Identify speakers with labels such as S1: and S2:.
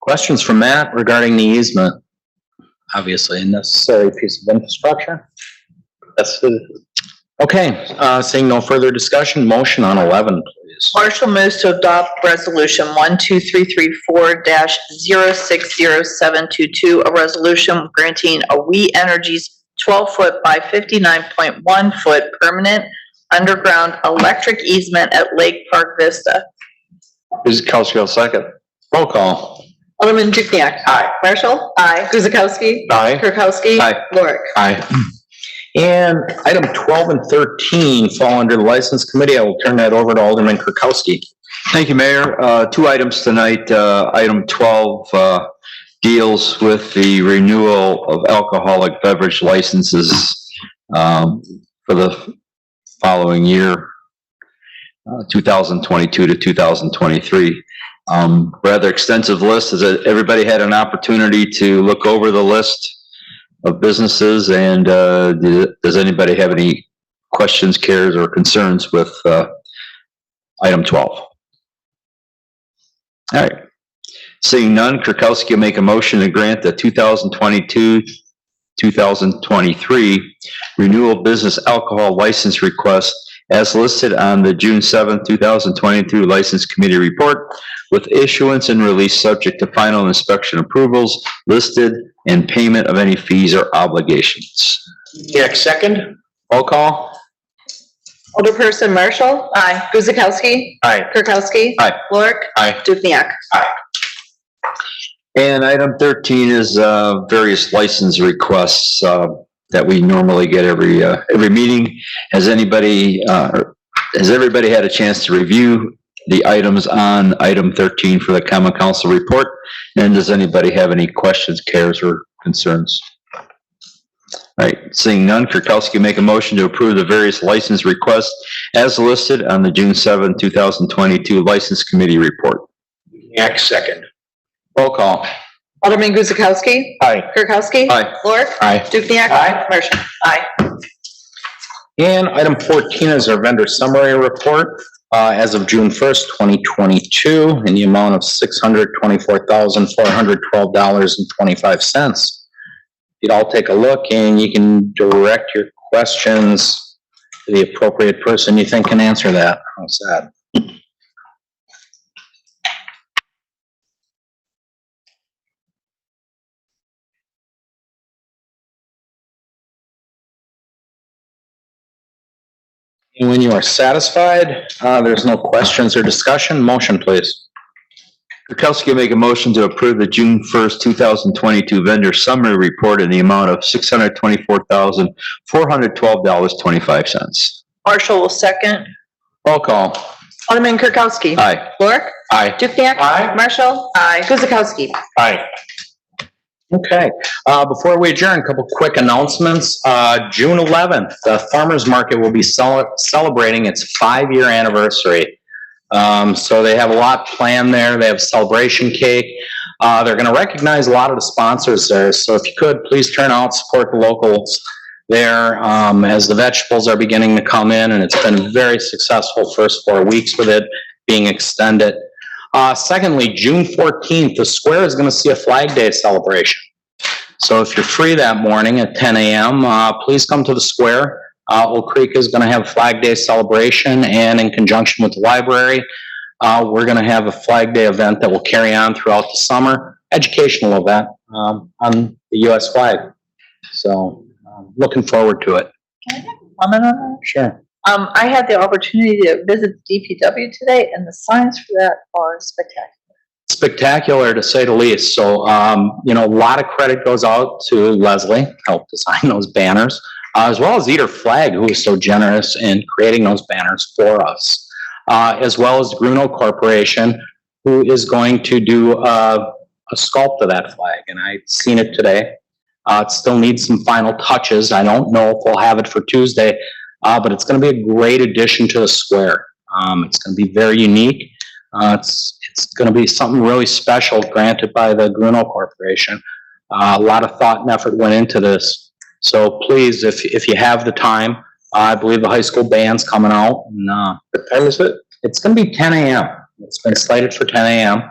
S1: Questions from Matt regarding the easement? Obviously a necessary piece of infrastructure. That's it. Okay, uh, seeing no further discussion, motion on eleven, please.
S2: Marshall moves to adopt resolution one, two, three, three, four dash zero, six, zero, seven, two, two, a resolution granting a We Energies twelve foot by fifty-nine point one foot permanent underground electric easement at Lake Park Vista.
S3: Kuzakowski will second.
S1: Roll call.
S4: Alderman Dukniak.
S3: Aye.
S4: Marshall. Aye. Guzekowski.
S3: Aye.
S4: Kirkowski.
S1: Aye.
S4: Lorik.
S1: Aye. And item twelve and thirteen fall under the License Committee. I will turn that over to Alderman Kirkowski.
S3: Thank you, Mayor. Uh, Two items tonight. Uh, Item 12 uh, deals with the renewal of alcoholic beverage licenses um, for the following year, uh, 2022 to 2023. Um, Rather extensive list. Is that everybody had an opportunity to look over the list of businesses? And uh, do- does anybody have any questions, cares, or concerns with uh, item 12? All right. Seeing none, Kirkowski will make a motion to grant the 2022, 2023 renewal business alcohol license request as listed on the June seventh, two 2022 License Committee Report with issuance and release subject to final inspection approvals listed and payment of any fees or obligations.
S1: Dukniak, second. Roll call.
S4: Alderperson Marshall.
S2: Aye.
S4: Guzekowski.
S1: Aye.
S4: Kirkowski.
S3: Aye.
S4: Lorik.
S1: Aye.
S4: Dukniak.
S3: And item thirteen is uh, various license requests uh, that we normally get every, uh, every meeting. Has anybody, uh, or has everybody had a chance to review the items on item thirteen for the common council report? And does anybody have any questions, cares, or concerns? All right, seeing none, Kirkowski make a motion to approve the various license requests as listed on the June seventh, two thousand twenty-two License Committee Report.
S1: Dukniak, second. Roll call.
S4: Alderman Guzekowski.
S1: Aye.
S4: Kirkowski.
S3: Aye.
S4: Lorik.
S1: Aye.
S4: Dukniak.
S1: Aye.
S4: Marshall.
S1: And item fourteen is our vendor summary report, uh, as of June first, twenty twenty-two, in the amount of six hundred twenty-four thousand, four hundred twelve dollars and twenty-five cents. You'd all take a look and you can direct your questions to the appropriate person you think can answer that. How's that? And when you are satisfied, uh, there's no questions or discussion, motion please.
S3: Kirkowski will make a motion to approve the June first, two thousand twenty-two vendor summary report in the amount of six hundred twenty-four thousand, four hundred twelve dollars, twenty-five cents.
S2: Marshall will second.
S1: Roll call.
S4: Alderman Kirkowski.
S3: Aye.
S4: Lorik.
S1: Aye.
S4: Dukniak.
S1: Aye.
S4: Marshall.
S2: Aye.
S4: Guzekowski.
S1: Aye. Okay, uh, before we adjourn, a couple quick announcements. Uh, June eleventh, the farmer's market will be cel- celebrating its five-year anniversary. Um, so they have a lot planned there. They have celebration cake. Uh, they're gonna recognize a lot of the sponsors there. So if you could, please turn out, support the locals there, um, as the vegetables are beginning to come in and it's been a very successful first four weeks with it being extended. Uh, secondly, June fourteenth, the square is gonna see a Flag Day celebration. So if you're free that morning at ten AM, uh, please come to the square. Uh, Old Creek is gonna have a Flag Day celebration and in conjunction with the library, uh, we're gonna have a Flag Day event that will carry on throughout the summer, educational event, um, on the US flag. So, um, looking forward to it.
S2: Comment on that?
S1: Sure.
S2: Um, I had the opportunity to visit DPW today and the signs for that are spectacular.
S1: Spectacular to say the least. So, um, you know, a lot of credit goes out to Leslie, helped design those banners, uh, as well as Eater Flag, who was so generous in creating those banners for us. Uh, as well as Gruno Corporation, who is going to do, uh, a sculpt of that flag, and I've seen it today. Uh, it still needs some final touches. I don't know if we'll have it for Tuesday, uh, but it's gonna be a great addition to the square. Um, it's gonna be very unique. Uh, it's, it's gonna be something really special granted by the Gruno Corporation. Uh, a lot of thought and effort went into this. So please, if, if you have the time, I believe the high school band's uh, coming out. No. What time is it? It's gonna be ten AM. It's been slated for ten AM.